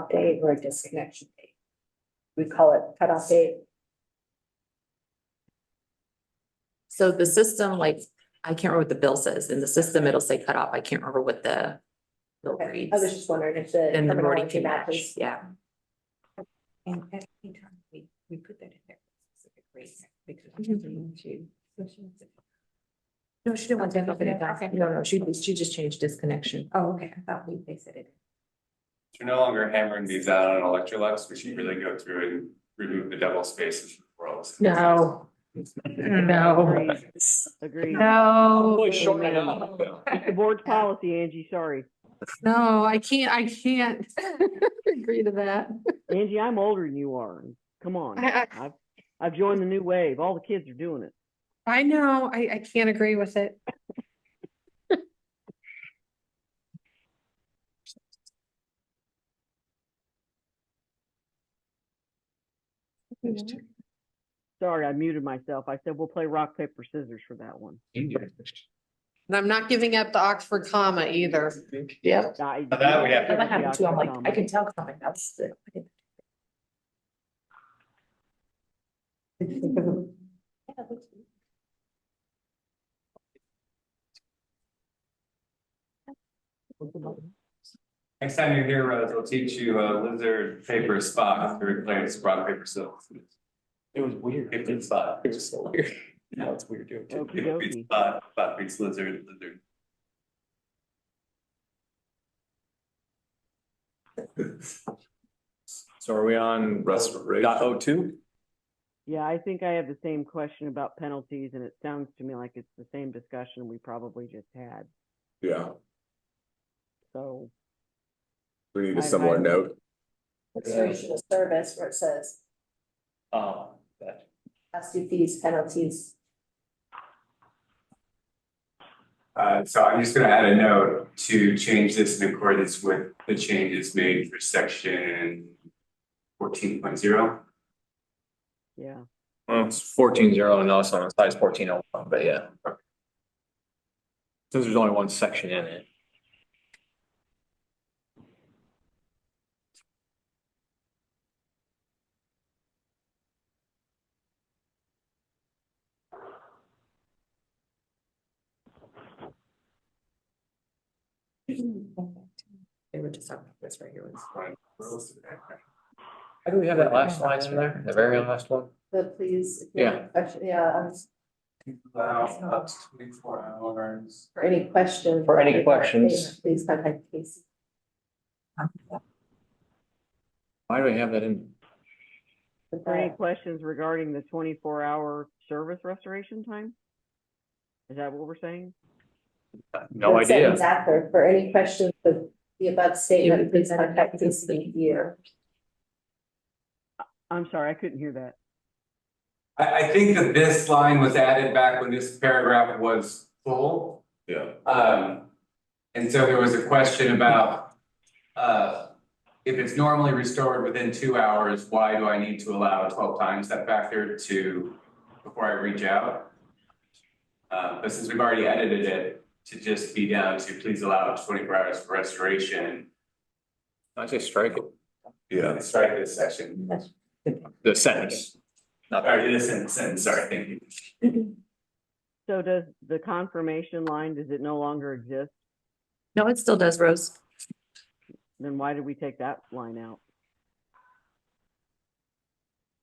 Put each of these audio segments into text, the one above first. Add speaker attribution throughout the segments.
Speaker 1: cutoff date or a disconnection date. We call it cutoff date.
Speaker 2: So the system, like, I can't remember what the bill says. In the system, it'll say cut off. I can't remember what the bill
Speaker 1: Okay, I was
Speaker 2: reads.
Speaker 1: just wondering if the.
Speaker 2: And the morning
Speaker 1: terminology
Speaker 2: can match,
Speaker 1: matches.
Speaker 2: yeah.
Speaker 3: And at any time, we, we put that in there. specific reason, because we
Speaker 2: Mhm.
Speaker 3: need to- No, she didn't want to.
Speaker 2: Okay,
Speaker 3: put it down.
Speaker 2: okay.
Speaker 3: No, no, she, she just changed disconnection. Oh, okay, I thought we, they said it.
Speaker 4: You're no longer hammering these out on Electrolux, we should really go through and remove the double spaces from worlds.
Speaker 3: No. No.
Speaker 5: Agreed.
Speaker 3: No.
Speaker 5: It's a board's policy, Angie, sorry.
Speaker 3: No, I can't, I can't agree to that.
Speaker 5: Angie, I'm older than you are. Come on.
Speaker 3: I- I-
Speaker 5: I've, I've joined the new wave. All the kids are doing it.
Speaker 3: I know, I, I can't agree with it.
Speaker 5: Sorry, I muted myself. I said, we'll play rock, paper, scissors for that one.
Speaker 3: And I'm not giving up the Oxford comma either.
Speaker 2: Yeah.
Speaker 5: I-
Speaker 4: Now that we have to-
Speaker 2: That happened too. I'm like, I can tell coming. That's the.
Speaker 4: Next time you're here, Rose, we'll teach you a lizard paper spot to replace rock, paper, scissors.
Speaker 6: It was weird.
Speaker 4: It was spot.
Speaker 6: It was so weird. Now it's weird doing it.
Speaker 5: Okey
Speaker 4: It would be
Speaker 5: dokey.
Speaker 4: spot, spot beats lizard, lizard.
Speaker 6: So are we on restoration? Dot oh two?
Speaker 5: Yeah, I think I have the same question about penalties and it sounds to me like it's the same discussion we probably just had.
Speaker 7: Yeah,
Speaker 5: So
Speaker 7: we need
Speaker 5: I-
Speaker 7: a similar
Speaker 5: I-
Speaker 7: note.
Speaker 1: Restoration of service where it says
Speaker 4: Um,
Speaker 6: Oh,
Speaker 4: that,
Speaker 1: has to fees, penalties.
Speaker 4: uh, so I'm just gonna add a note to change this in accordance with the changes made for section fourteen point zero.
Speaker 5: Yeah,
Speaker 6: Well, it's fourteen zero and also on size fourteen oh one, but yeah. Since there's only one section in it.
Speaker 2: They were just talking about this right here.
Speaker 6: How do we have that last line in there? The very last one?
Speaker 1: The please.
Speaker 6: Yeah.
Speaker 1: Question- Yeah, um,
Speaker 4: Allow up to twenty-four hours.
Speaker 1: for any questions.
Speaker 6: For any questions.
Speaker 1: Please contact Casey.
Speaker 6: Why do we have that in?
Speaker 1: with
Speaker 5: are there any
Speaker 1: that.
Speaker 5: questions regarding the twenty-four hour service restoration time? Is that what we're saying?
Speaker 6: Uh, No
Speaker 1: The sentence
Speaker 6: idea.
Speaker 1: After, for any questions of the above statement, please
Speaker 2: presented
Speaker 1: contact
Speaker 2: at this
Speaker 1: Casey here.
Speaker 5: I'm sorry, I couldn't hear that.
Speaker 4: I, I think that this line was added back when this paragraph was full.
Speaker 7: Yeah.
Speaker 4: Um, and so there was a question about, uh, if it's normally restored within two hours, why do I need to allow a twelve times that factor to, before I reach out? Uh, but since we've already edited it to just be down to please allow twenty-four hours for restoration,
Speaker 6: I say strike it.
Speaker 7: Yeah,
Speaker 4: strike this section.
Speaker 6: The sentence. Not
Speaker 4: Or this sentence, sorry, thank you.
Speaker 5: So does the confirmation line, does it no longer exist?
Speaker 2: No, it still does, Rose.
Speaker 5: Then why did we take that line out?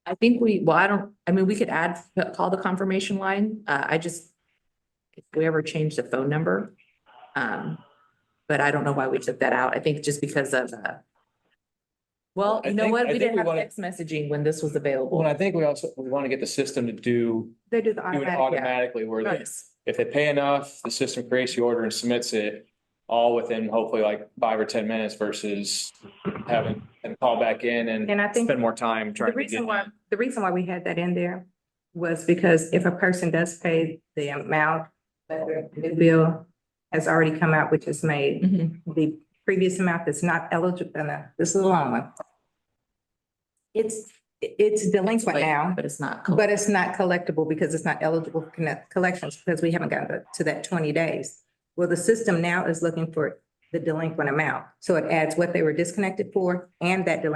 Speaker 2: I think we, well, I don't, I mean, we could add, call the confirmation line. Uh, I just, if we ever change the phone number. Um, but I don't know why we took that out. I think just because of, uh, well,
Speaker 6: I
Speaker 2: you know
Speaker 6: think-
Speaker 2: what?
Speaker 6: I
Speaker 2: We
Speaker 6: think
Speaker 2: didn't
Speaker 6: we
Speaker 2: have
Speaker 6: wanna-
Speaker 2: text messaging when this was available.
Speaker 6: Well, and I think we also, we want to get the system to do,
Speaker 2: They do the
Speaker 6: do it
Speaker 2: automatic,
Speaker 6: automatically where
Speaker 2: yeah.
Speaker 6: they
Speaker 2: Yes.
Speaker 6: if they pay enough, the system creates the order and submits it all within hopefully like five or ten minutes versus having and call back in and
Speaker 8: And I think
Speaker 6: spend more time trying
Speaker 8: the
Speaker 6: to get.
Speaker 8: reason why, the reason why we had that in there was because if a person does pay the amount that their new bill has already come out, which is made,
Speaker 2: Mhm.
Speaker 6: Mm-hmm.
Speaker 8: the previous amount that's not eligible, no, no, this is a long one. It's, it's delinquent now,
Speaker 2: But it's not.
Speaker 8: but it's not collectible because it's not eligible for connect- collections because we haven't gotten to that twenty days. Well, the system now is looking for the delinquent amount. So it adds what they were disconnected for and that delinquent